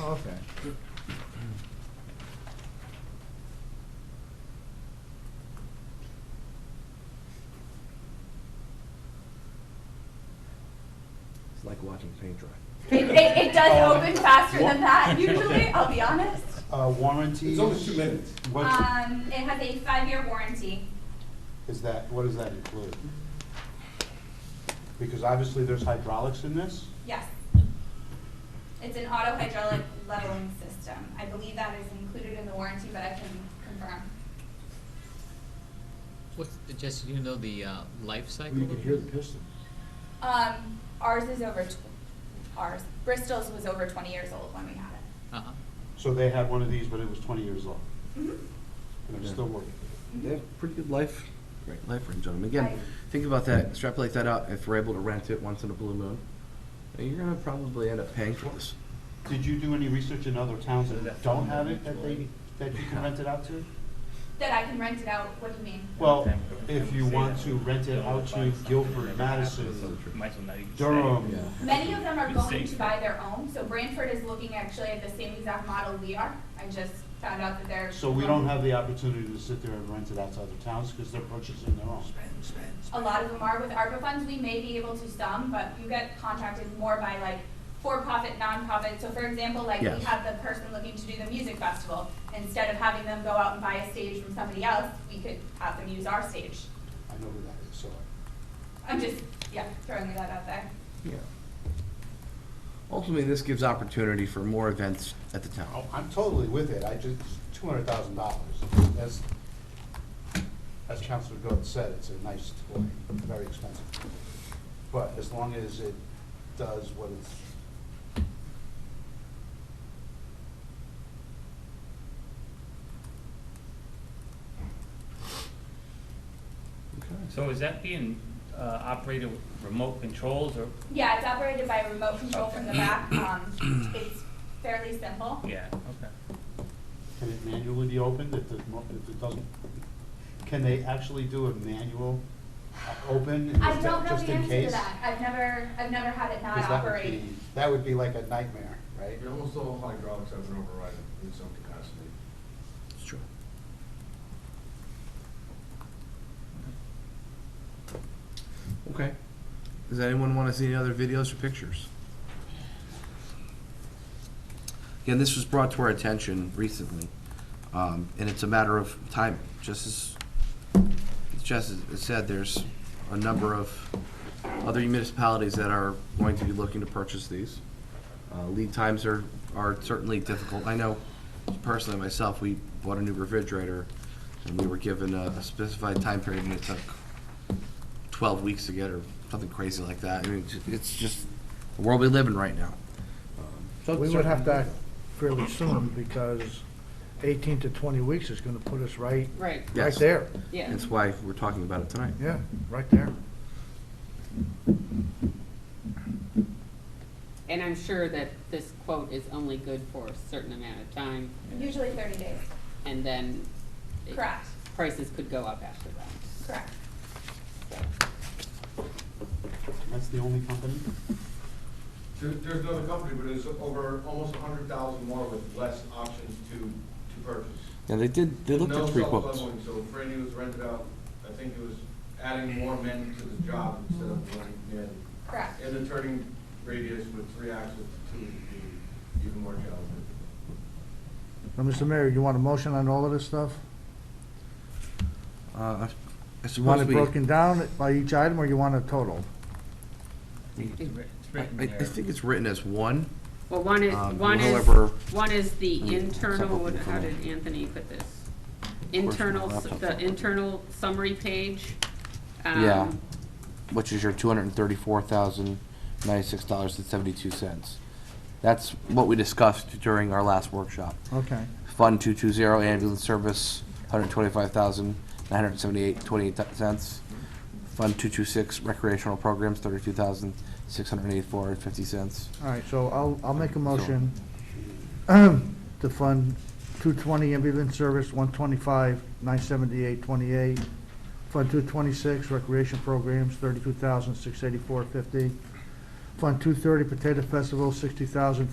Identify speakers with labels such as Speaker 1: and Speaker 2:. Speaker 1: Okay.
Speaker 2: It's like watching paint dry.
Speaker 3: It, it, it does
Speaker 1: Uh,
Speaker 3: open faster than that usually,
Speaker 1: Okay.
Speaker 3: I'll be honest.
Speaker 1: Uh, warranties?
Speaker 4: It's only two minutes.
Speaker 1: What's,
Speaker 5: Um, it has a five-year warranty.
Speaker 1: is that, what does that include? Because obviously there's hydraulics in this.
Speaker 5: Yes. It's an auto hydraulic leveling system. I believe that is included in the warranty, but I can confirm.
Speaker 6: What's, Jesse, do you know the uh, life cycle?
Speaker 4: You can
Speaker 6: of
Speaker 4: hear
Speaker 6: it?
Speaker 4: the piston.
Speaker 5: Um, ours is over, tw- ours, Bristol's was over twenty years old when we had it.
Speaker 6: Uh-huh.
Speaker 1: So they had one of these, but it was twenty years old,
Speaker 4: Mm-hmm.
Speaker 5: Mhm.
Speaker 1: and they're
Speaker 2: Yeah.
Speaker 1: still working.
Speaker 2: They have pretty good life, life range on them. Again,
Speaker 5: Right.
Speaker 2: think about that, extrapolate that out, if we're able to rent it once in a blue moon, you're gonna probably end up paying for this.
Speaker 1: Did you do any research in other towns that don't have it, that they, that you can rent it out to?
Speaker 5: That I can rent it out, what do you mean?
Speaker 1: Well, if you want to rent it out to Guilford, Madison,
Speaker 2: Oh,
Speaker 1: Durham,
Speaker 5: Many of them are
Speaker 7: Be
Speaker 5: going
Speaker 7: safe.
Speaker 5: to buy their own, so Branford is looking actually at the same exact model we are. I just found out that they're.
Speaker 1: so we don't have the opportunity to sit there and rent it out to other towns, because they're purchasing their own.
Speaker 5: A lot of them are with ARPA funds, we may be able to some, but you get contracted more by like for-profit, non-profit. So for example, like we
Speaker 2: Yes.
Speaker 5: have the person looking to do the music festival, instead of having them go out and buy a stage from somebody else, we could have them use our stage.
Speaker 1: I know who that is, so.
Speaker 5: I'm just, yeah, throwing that out there.
Speaker 2: Yeah. Ultimately, this gives opportunity for more events at the town.
Speaker 4: Oh, I'm totally with it, I just, two hundred thousand dollars, as, as Counselor Gordon said, it's a nice toy, very expensive. But as long as it does what it's.
Speaker 7: So is that being uh, operated with remote controls or,
Speaker 5: Yeah, it's operated by remote control from the back, um, it's fairly simple.
Speaker 7: yeah, okay.
Speaker 1: Can it manually be opened if it, mo- if it doesn't? Can they actually do a manual uh, open? Is
Speaker 5: I
Speaker 1: that
Speaker 5: don't know
Speaker 1: just
Speaker 5: the
Speaker 1: in
Speaker 5: answer to
Speaker 1: case?
Speaker 5: that. I've never, I've never had it not
Speaker 1: 'Cause that would
Speaker 5: operate.
Speaker 1: be- That would be like a nightmare, right?
Speaker 8: And almost all hydraulics have an override in some capacity.
Speaker 2: It's true. Okay. Does anyone want to see any other videos or pictures? Again, this was brought to our attention recently, um, and it's a matter of timing. Just as, just as it said, there's a number of other municipalities that are going to be looking to purchase these. Uh, Lead times are, are certainly difficult. I know personally myself, we bought a new refrigerator and we were given a a specified time period and it took twelve weeks to get or something crazy like that. I mean, it's- it's just the world we live in right now.
Speaker 9: We would have to act fairly soon because eighteen to twenty weeks is gonna put us right,
Speaker 10: Right,
Speaker 9: right
Speaker 2: Yes.
Speaker 9: there.
Speaker 10: yeah.
Speaker 2: That's why we're talking about it tonight.
Speaker 9: Yeah, right there.
Speaker 10: And I'm sure that this quote is only good for a certain amount of time,
Speaker 5: Usually thirty days.
Speaker 10: and then. it-
Speaker 5: Correct,
Speaker 10: Prices could go up after that.
Speaker 5: correct.
Speaker 1: That's the only company?
Speaker 8: There, there's another company, but it's over almost a hundred thousand more with less options to, to purchase.
Speaker 2: And they did, they looked
Speaker 8: No
Speaker 2: at three quotes.
Speaker 8: self-leveling, So Franny was rented out, I think it was adding more men to the job instead of running men.
Speaker 5: Correct.
Speaker 8: And the turning radius with three axles to two would be even more challenging.
Speaker 9: Now, Mr. Mayor, you want a motion on all of this stuff?
Speaker 2: Uh, I
Speaker 9: You
Speaker 2: suppose
Speaker 9: want it
Speaker 2: we, I
Speaker 9: broken down by each item, or you want a total?
Speaker 7: It's writ- it's
Speaker 2: I-
Speaker 7: written
Speaker 2: I
Speaker 7: there.
Speaker 2: think it's written as one.
Speaker 10: Well, one is,
Speaker 2: Um,
Speaker 10: one is,
Speaker 2: however-
Speaker 10: one is the internal,
Speaker 2: Supplemental
Speaker 10: what- how
Speaker 2: information.
Speaker 10: did Anthony put this?
Speaker 2: my
Speaker 10: Internal, s-
Speaker 2: laptop's
Speaker 10: the
Speaker 2: not working.
Speaker 10: internal summary page.
Speaker 2: Yeah.
Speaker 10: um,
Speaker 2: which is your two hundred and thirty-four thousand ninety-six dollars and seventy-two cents. That's what we discussed during our last workshop.
Speaker 9: Okay.
Speaker 2: Fund two-two-zero ambulance service, hundred twenty-five thousand nine hundred seventy-eight twenty-eight cents. Fund two-two-six recreational programs, thirty-two thousand six hundred eighty-four and fifty cents.
Speaker 9: All right, so I'll, I'll make a motion to fund two twenty ambulance service, one twenty-five, nine seventy-eight, twenty-eight. Fund two twenty-six recreation programs, thirty-two thousand, six eighty-four, fifty. Fund two thirty potato festival, sixty thousand,